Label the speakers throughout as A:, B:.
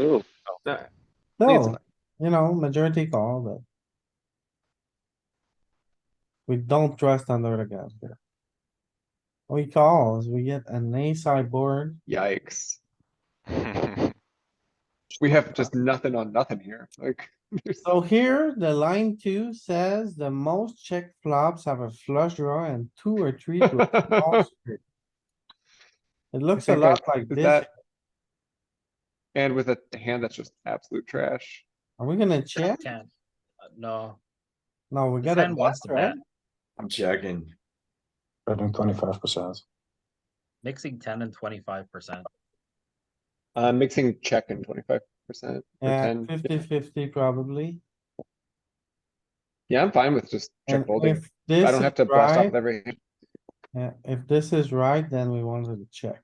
A: Ooh, Leads
B: No, you know, majority call, but. We don't trust under the gun here. We calls, we get an ace high board.
C: Yikes. We have just nothing on nothing here, like. there's-
B: So here, the line two says the most check flops have a flush draw and two or three. to a small straight. It looks a
C: think I-
B: lot like
C: is
B: this.
C: that- And with a hand that's just absolute trash.
B: Are we gonna check?
D: Ten. Uh, No,
B: No, we
D: the
B: gotta
D: ten
B: bluff,
D: wants to
B: right?
D: bet,
E: I'm checking.
F: better than twenty-five percent.
D: mixing ten and twenty-five percent.
C: Uh, mixing check in twenty-five percent.
B: Yeah,
C: 10, yeah.
B: 50-50 probably.
C: Yeah, I'm fine with just check
B: And
C: folding.
B: if this
C: I don't have
B: is
C: to blast off
B: right-
C: with every, hand.
B: Yeah, if this is right, then we wanted to check.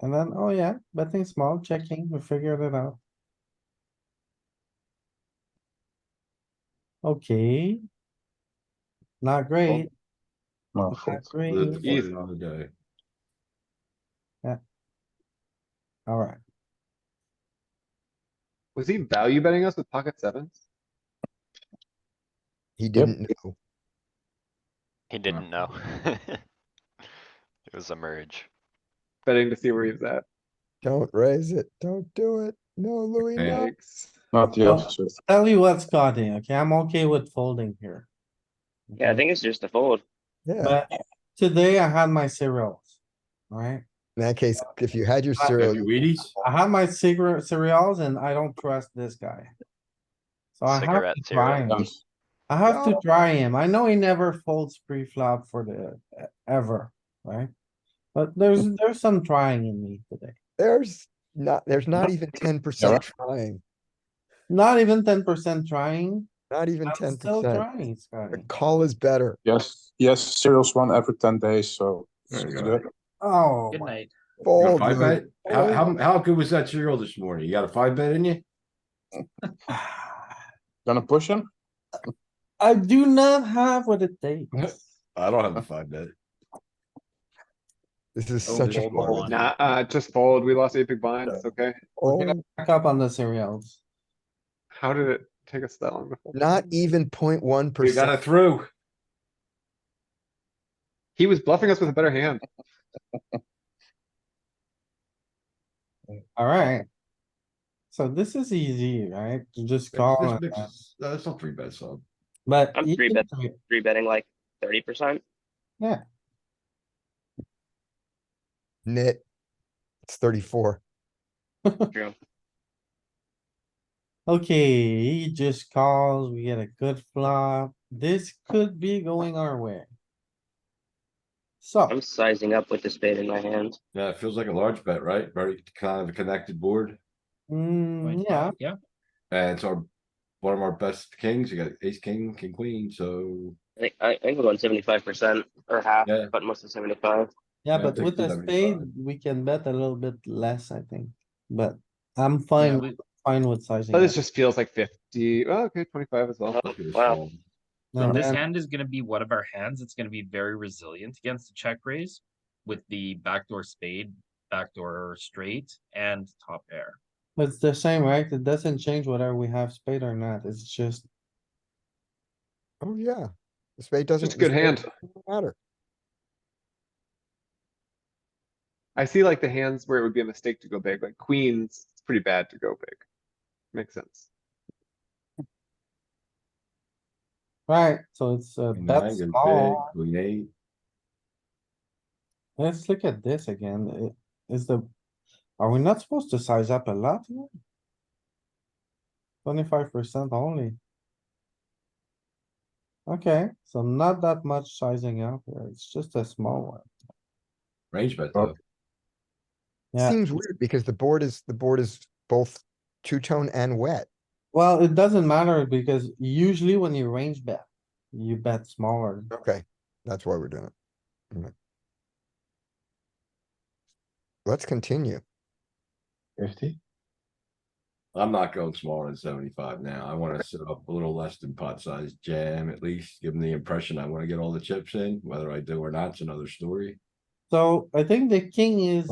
B: And then, oh yeah, betting small, checking, we figured it out. Okay. Not great,
F: No,
B: not
F: fold.
E: That's
B: great,
C: Easy.
E: fine on the day.
B: alright,
C: was he value betting us with pocket sevens?
G: He didn't know.
A: he didn't know. It was a merge.
C: Betting to see where he's at.
G: Don't raise it. Don't do it. No, Louis, no.
C: Yikes.
F: Not the
B: No.
F: opposite.
B: tell you what, Scotty, okay, I'm okay with folding here.
A: Yeah, I think it's just a fold.
G: Yeah.
B: But today I had my cereals, right?
G: In that case, if you had your
B: Uh,
G: cereal,
E: You Wheaties?
B: I have my cigarette cereals and I don't trust this guy. So I have
A: Cigarette
B: to
A: cereal.
B: try him.
F: Um,
B: I have to try him. I know he never folds pre-flop for the, e, ever, right? But there's,
G: Mm.
B: there's some trying in me today.
G: there's not, there's not even ten percent trying,
B: Not even ten percent trying.
G: not even
B: I'm
G: ten
B: still
G: percent.
B: trying,
G: The
B: Scotty.
G: call is better.
F: Yes, yes, cereals one every ten days, so.
E: There you
F: it's
E: go.
F: good.
B: Oh,
D: Good
B: my-
D: night.
E: You got a
G: Fold,
E: Five
G: Louis.
E: bet? How, how, how good was that cereal this morning? You got a five bet in you?
F: Gonna push him?
B: I do not have what it takes.
E: I don't have a five bet.
G: This is
E: Oh,
G: such a
E: fold,
G: fold.
D: fold.
C: Nah, uh, just fold. We lost eight big blinds. It's okay.
G: Oh,
B: Back up on the cereals.
C: How did it take us that long to fold?
G: not even point one
E: We got
G: percent.
E: it through.
C: He was bluffing us with a better hand.
B: Alright. So this is easy, right? You just call.
E: This
B: and,
E: mix
B: uh,
E: is- no, That's not three bets, so.
B: But.
H: I'm
B: you
H: three
B: can
H: bet-
B: do it.
H: three betting like thirty percent.
G: Knit. It's thirty-four.
H: True.
B: Okay, he just calls, we get a good flop. This could be going our way. So.
H: I'm sizing up with the spade in my hand.
E: Yeah, it feels like a large bet, right? Very kind of a connected board.
B: Mm,
D: Point
B: yeah,
D: five, Yeah,
E: And it's our, one of our best kings. You got ace, king, king, queen, so.
H: I think I I think we're going seventy five percent or half,
E: Yeah.
H: but most of seventy five.
B: yeah,
E: Yeah,
B: but with a
E: 60,
B: spade,
E: 75.
B: we can bet a little bit less, I think, but I'm
C: Yeah,
B: fine,
C: we-
B: with- fine with sizing.
C: But this
B: up.
C: just feels like fifty. Oh, okay, twenty-five as well.
H: Oh,
E: look at this
H: Wow,
E: fold.
D: so
B: And
D: this
B: then-
D: hand is gonna be one of our hands. It's gonna be very resilient against the check raise with the backdoor spade, backdoor straight and top pair.
B: But it's the same, right? It doesn't change whether we have spade or not, it's just,
G: Oh, yeah. The spade doesn't.
C: Just a good
G: the spade
C: hand.
G: doesn't Matter.
C: I see like the hands where it would be a mistake to go big, like queens, it's pretty bad to go big. Makes sense.
B: right, so it's a
E: Queen
B: bet
E: nine goes big,
B: small.
E: Queen eight.
B: Let's look at this again, I- is the, are we not supposed to size up a lot? Twenty-five percent only. Okay, so not that much sizing up here, it's just a small one.
E: Range bet
F: Oh.
E: though.
B: Yeah.
G: Seems weird because the board is, the board is both two-tone and wet.
B: Well, it doesn't matter because usually when you range bet, you bet smaller.
G: Okay, that's why we're doing it. Mm. Let's continue.
F: Fifty?
E: I'm not going smaller than seventy-five now. I wanna set up a little less than pot size jam, at least give them the impression I wanna get all the chips in, whether I do or not's another story.
B: So I think the king is